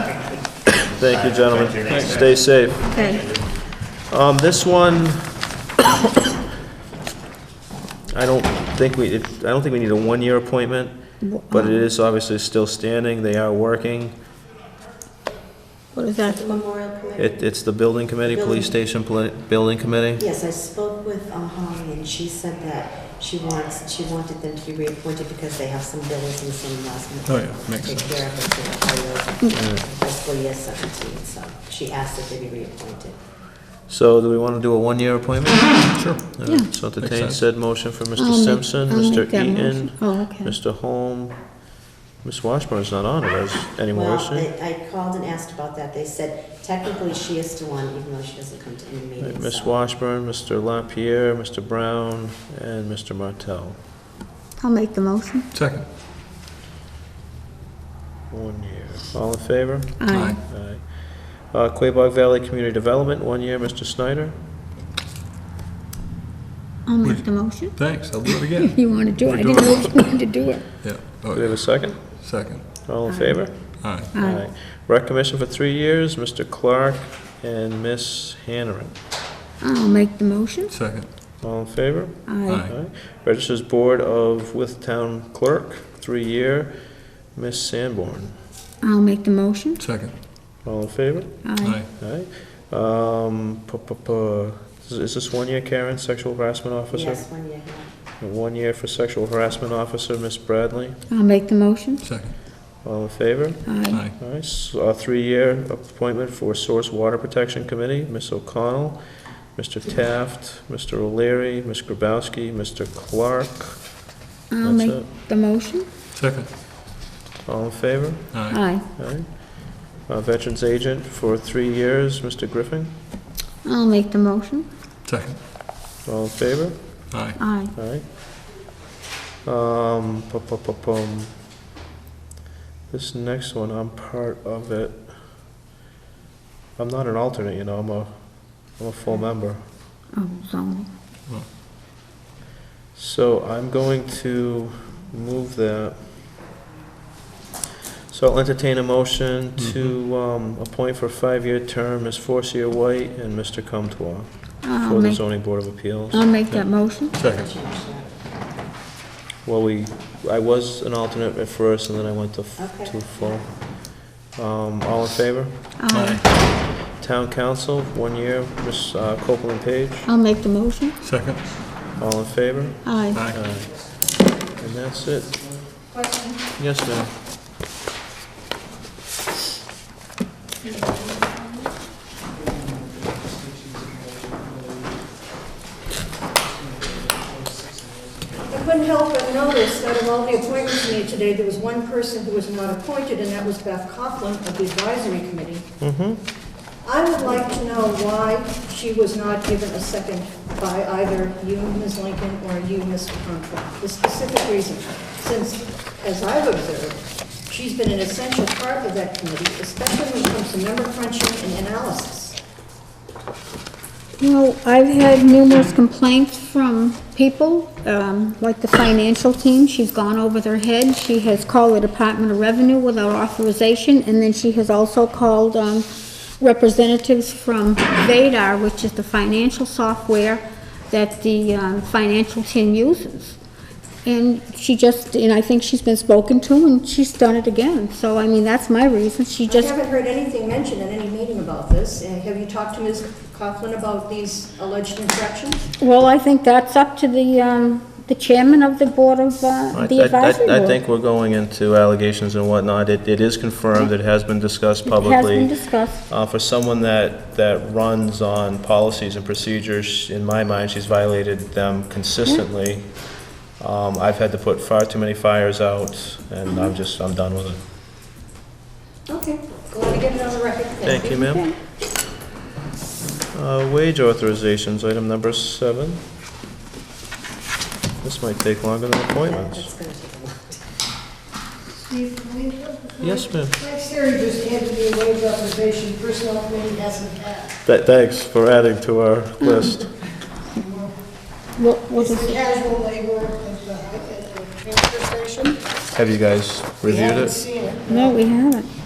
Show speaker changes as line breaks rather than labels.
Thank you, gentlemen. Stay safe.
Okay.
Um, this one, I don't think we, it- I don't think we need a one-year appointment, but it is obviously still standing, they are working.
What is that?
The Memorial Committee?
It, it's the building committee, police station pla- building committee.
Yes, I spoke with uh, Holly, and she said that she wants, she wanted them to be reappointed because they have some bills and some last minute.
Oh, yeah, makes
Take care of it for the whole fiscal year 17, so she asked that they be reappointed.
So do we want to do a one-year appointment?
Sure.
All right, So entertain
sense.
said motion for Mr.
I'll make-
Simpson,
I'll
Mr.
make that
Eaton,
motion. Oh, okay.
Mr. Holm. Ms. Washburn's not on it as- anymore, is
Well,
she?
they- I called and asked about that. They said technically she is still on, even though she doesn't come to any meetings.
Ms.
so-
Washburn, Mr. LaPierre, Mr. Brown, and Mr. Martel.
I'll make the motion.
Second.
One year. All in favor?
Aye.
Aye. Uh, Quabog Valley Community Development, one year, Mr. Snyder.
I'll make the motion.
Thanks, I'll do it again.
You want to do it? I didn't know if you wanted to do it.
Yeah,
Do we
oh,
have a second?
second.
All in favor?
All right,
Aye.
Rec Commission for three years, Mr. Clark and Ms. Hanneran.
I'll make the motion.
second.
All in favor?
Aye.
Aye.
Aye. Registers Board of with Town Clerk, three-year, Ms. Sanborn.
I'll make the motion.
Second.
All in favor?
Aye.
Aye.
Aye. Um, pu- pu- pu- is- Is this one year, Karen, sexual harassment officer?
Yes, one year.
One year for sexual harassment officer, Ms. Bradley.
I'll make the motion.
Second.
All in favor?
Aye.
Aye.
All right, s- a three-year appointment for Source Water Protection Committee, Ms. O'Connell, Mr. Taft, Mr. O'Leary, Ms. Grabowski, Mr. Clark. That's
I'll make
it.
the motion.
Second.
All in favor?
Aye.
Aye.
All right. Uh, Veterans Agent for three years, Mr. Griffin.
I'll make the motion.
Second.
All in favor?
Aye.
Aye.
All right. Um, pu- pu- pu- pum. This next one, I'm part of it. I'm not an alternate, you know, I'm a, I'm a full member.
Oh, zoning.
So I'm going to move that. So I'll entertain a motion to um, appoint for a five-year term Ms. Forcia White and Mr. Comtois
I'll
for the
make,
zoning board of appeals.
I'll make that motion.
Second.
Well, we, I was an alternate at first, and then I went to, f-
Okay.
to full. Um, All in favor?
Aye.
Town council, one year, Ms. uh, Copeland Page,
I'll make the motion.
Second.
all in favor?
Aye.
Aye.
Aye.
And that's it. Yes, ma'am.
I couldn't help but notice out of all the appointments made today, there was one person who was not appointed, and that was Beth Coughlin of the advisory committee. I would like to know why she was not given a second by either you, Ms. Lincoln, or you, Mr. Conklin. The specific reason, since, as I've observed, she's been an essential part of that committee, especially when it comes to number crunching and analysis.
Well, I've had numerous complaints from people, um, like the financial team, she's gone over their head. She has called the Department of Revenue without authorization, and then she has also called, um, representatives from Vadar, which is the financial software that the, um, financial team uses. And she just, and I think she's been spoken to, and she's done it again. So, I mean, that's my reason, she
I
just
haven't heard anything mentioned in any meeting about this. Uh, Have you talked to Ms. Coughlin about these alleged infractions?
Well, I think that's up to the, um, the chairman of the board of, uh,
I-
the
I- I-
advisory board.
I think we're going into allegations and whatnot. It, it is confirmed, it has been discussed publicly.
It has been discussed.
Uh, for someone that, that runs on policies and procedures, in my mind, she's violated them consistently. Um, I've had to put far too many fires out, and I'm just, I'm done with it.
Okay, glad to get it on the record.
Thank you, ma'am. Uh, Wage authorizations, item number seven. This might take longer than
Yeah,
appointments.
that's going to take a while.
Steve, can we-
Yes, ma'am.
Next area just handed me a wage authorization, personnel committee hasn't passed.
Th- Thanks for adding to our list.
What, what
It's
is
the
it?
casual labor at the, at the transfer station.
Have you guys
We
reviewed it?
haven't seen it.
No, we haven't.